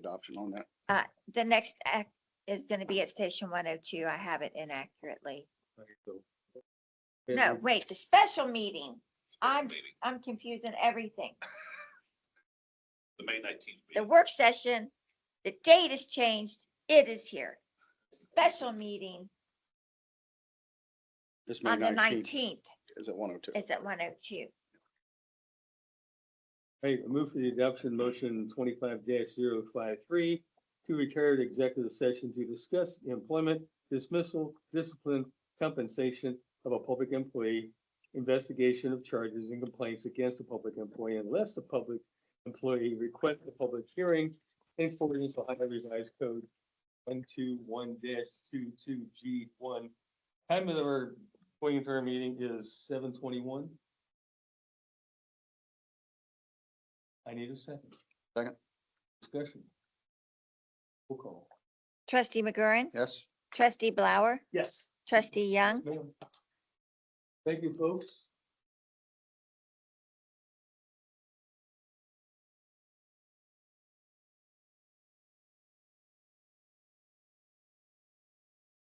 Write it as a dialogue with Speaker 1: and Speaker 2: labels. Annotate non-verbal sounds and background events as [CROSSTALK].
Speaker 1: adoption on that.
Speaker 2: The next act is going to be at Station 102. I have it inaccurately.
Speaker 1: So-
Speaker 2: No, wait, the special meeting. I'm,
Speaker 3: meeting,
Speaker 2: I'm confusing everything.
Speaker 3: [LAUGHS] The May nineteenth
Speaker 2: The
Speaker 3: meeting.
Speaker 2: work session, the date is changed. It is here. Special meeting
Speaker 1: This May
Speaker 2: on the
Speaker 1: 19th
Speaker 2: 19th
Speaker 1: is at 102.
Speaker 2: is at 102.
Speaker 4: Hey, I move for the adoption motion twenty-five 53 to retire to executive session to discuss the employment dismissal, discipline, compensation of a public employee, investigation of charges and complaints against a public employee unless the public employee requests a public hearing in accordance with Ohio Revised Code one two one 22 G one. Time of our going into our meeting is seven twenty-one. I need a second.
Speaker 1: Second.
Speaker 4: Discussion. Roll call.
Speaker 2: Trustee McGurran,
Speaker 1: Yes?
Speaker 2: trustee Blower,
Speaker 4: Yes.
Speaker 2: trustee Young,
Speaker 4: Thank you, folks.